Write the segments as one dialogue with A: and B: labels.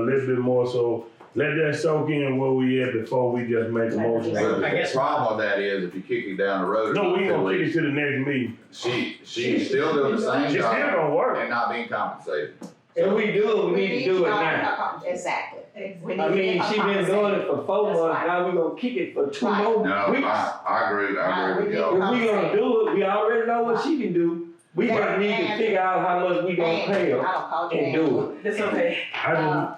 A: little bit more, so let that soak in where we at before we just make a motion.
B: Well,
C: I
B: the
C: guess-
B: problem with that is if you kick it down the road.
A: No, we
B: it's
A: gonna kick it
B: illegal.
A: to the next meeting.
B: She, she's still doing the
A: It's
B: same
A: still
B: job
A: gonna work.
B: and not being compensated.
D: If we do it, we need to do it now.
E: now. Exactly.
F: Exactly.
E: We need
D: I
E: to
D: mean,
E: have a
D: she been doing it for four
E: That's
D: months,
E: right.
D: now we gonna kick it for two
E: Right.
D: more
B: No, I,
D: weeks.
B: I agree, I agree with
D: If
B: y'all.
D: we gonna do it, we already know what she can do, we just need to figure out how much we gonna
E: conversation.
D: pay
E: And
D: her.
E: I'll call you
D: and do
E: back.
F: It's okay.
A: I just,
E: Uh,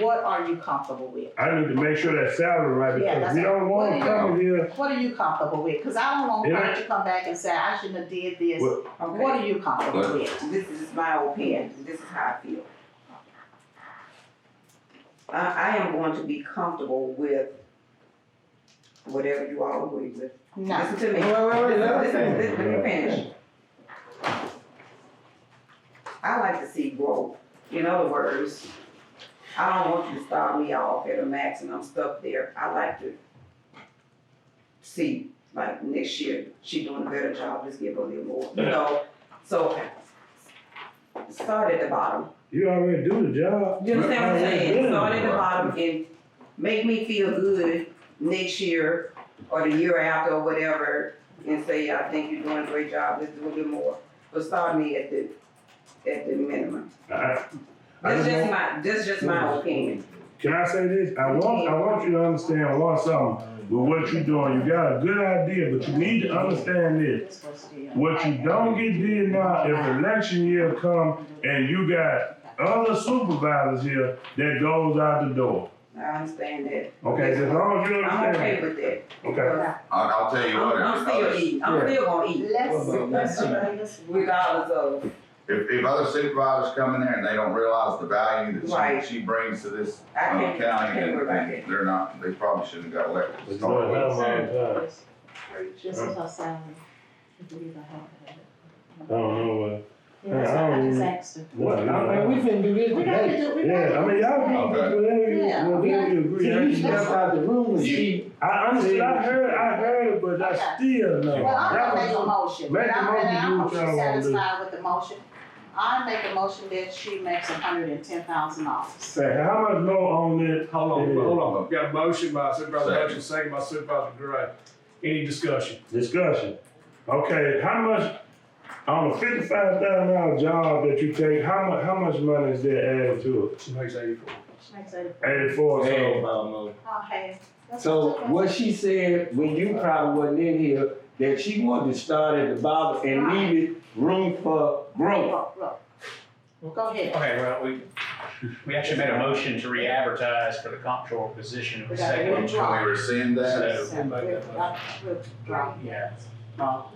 E: What are you comfortable with?
A: I need to make sure that salary right,
E: Yeah,
A: because
E: that's
A: we don't
E: what
A: want
E: it
A: to
E: is.
A: come here.
E: What are you comfortable with? Cause I don't want
A: Yeah.
E: her to come back and say, I shouldn't have did this.
A: Well-
E: What are you comfortable with?
F: This is my opinion, this is how I feel. I, I am going to be comfortable with whatever you all agree with.
E: No,
F: Listen to me.
D: Wait, wait, wait, let her
F: Listen,
D: finish.
F: listen, Let me finish. I like to see growth. In other words, I don't want you to start me off at a max and I'm stuck there. I like to see, like next year, she doing a better job, just give her a little more, you know? So, start at the bottom.
A: You already do the job.
F: You understand what I'm saying?
A: Yeah.
F: Start at the bottom and make me feel good next year or the year after or whatever and say, I think you're doing a great job, let's do a little more. But start me at the, at the minimum.
A: I- I
F: That's
A: just want-
F: just my, that's just my opinion.
A: Can I say this? I want, I want you to understand one something, with what you're doing, you got a good idea, but you need to understand this.
E: this was the.
A: What you don't get did now, if election year come and you got other supervisors here, that goes out the door.
F: I understand that.
A: Okay, as long as you
F: I'm okay
A: understand.
F: with that.
A: Okay.
B: I'll, I'll tell you
F: I'm,
B: what.
F: I'm still
B: if-
F: eating, I'm still gonna eat
E: Let's, let's.
F: regardless of.
B: If, if other supervisors come in there and they don't realize the value that
F: Right.
B: she, she brings to this
F: I
B: um,
F: can't- I
B: county,
F: can't
B: then
F: worry about
B: then they're not, they probably shouldn't have got elected. to
A: It's
B: start
A: not
B: with.
A: time.
G: This is our salary. If we even have it.
A: I don't know uh, what.
G: Yeah, that's what I just asked her.
D: What, I mean, we finna do this
G: We got to
D: today.
G: do, we got
A: Yeah, I mean, y'all
B: Okay.
A: be, whatever you,
E: Yeah,
A: whatever you
D: See,
A: agree. I
D: you
A: just-
D: stepped out the room and she,
A: I honestly, I heard, I heard, it, but I still know.
E: Well, I'm
A: That
E: gonna make
A: was-
E: a motion,
A: Make
E: but
A: the
E: I'm
A: motion,
E: really,
A: do
E: I'm
A: what y'all wanna do.
E: satisfied with the motion. I make a motion that she makes hundred and ten thousand dollars.
A: Say, how much more on it?
H: Hold on,
A: Yeah.
H: hold on. Got a motion by Supervisor
B: Second.
H: Hutchins, second by Supervisor Gray. Any discussion?
A: Discussion. Okay, how much, on a fifty-five thousand dollar job that you take, how mu, how much money is that added to
H: She makes eighty-four.
A: it? Eighty-four, so,
E: Okay.
D: so what she said, when you probably wasn't in here, that she wanted to start at the bottom and leave it room for growth.
E: Roll, roll. Go ahead.
I: Okay, well, we, we actually made a motion to re-advertise for the comptroller position. It was
E: We got a
I: seconded.
E: new
B: Can we
E: drop.
B: rescind that?
I: So, yeah.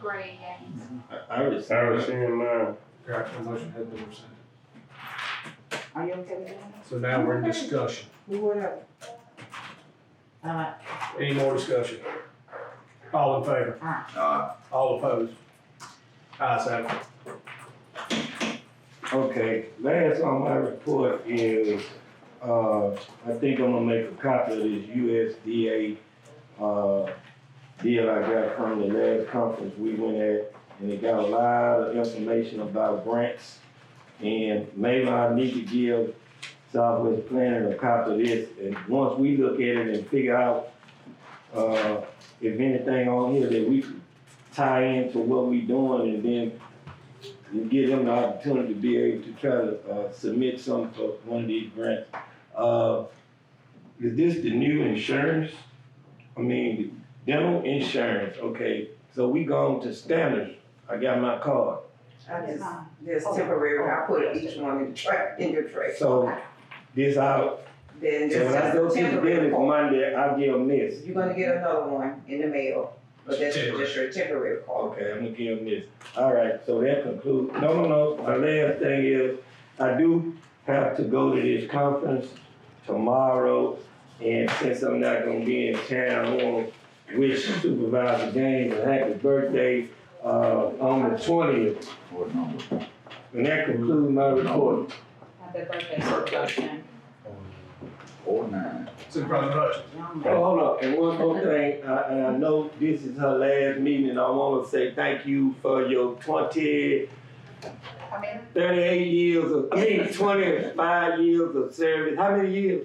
G: Gray, yeah.
D: I was.
A: I was seeing mine.
H: Correct, the motion has been rescinded.
E: Are you okay with that?
H: So now we're in discussion.
E: Alright,
H: Any more discussion? All in favor?
B: Uh,
H: All opposed? Ayes have it.
D: Okay, last on my report is, uh, I think I'm gonna make a copy of this USDA, uh, deal I got from the last conference we went at, and it got a lot of information about grants. And maybe I need to give Southwest Planning a copy of this, and once we look at it and figure out, uh, if anything on here that we can tie into what we doing, and then and give them the opportunity to be able to try to, uh, submit some for one of these grants. Uh, is this the new insurance? I mean, dental insurance, okay, so we gone to standards, I got my card.
F: I just, that's temporary. I put each one in the tray, in your tray.
D: So this out,
F: Then
D: so when I go
F: it's just
D: to the
F: temporary.
D: dentist Monday, I give them this.
F: You're gonna get another one in the mail, but that's just your temporary call.
D: Okay, I'm gonna give them this. All right, so that concludes, no, no, no, my last thing is, I do have to go to this conference tomorrow. And since I'm not gonna be in town, I wanna wish Supervisor Gaines a happy birthday, uh, on the twentieth.
B: what number?
D: And that concludes my report.
E: happy birthday, Supervisor.
B: Four nine.
H: Supervisor Hutchins.
D: Oh, hold up, and one more thing, I, and I know this is her last meeting, and I wanna say thank you for your twenty
E: Come in.
D: 38 years of, I mean, 25 years of service. How many years?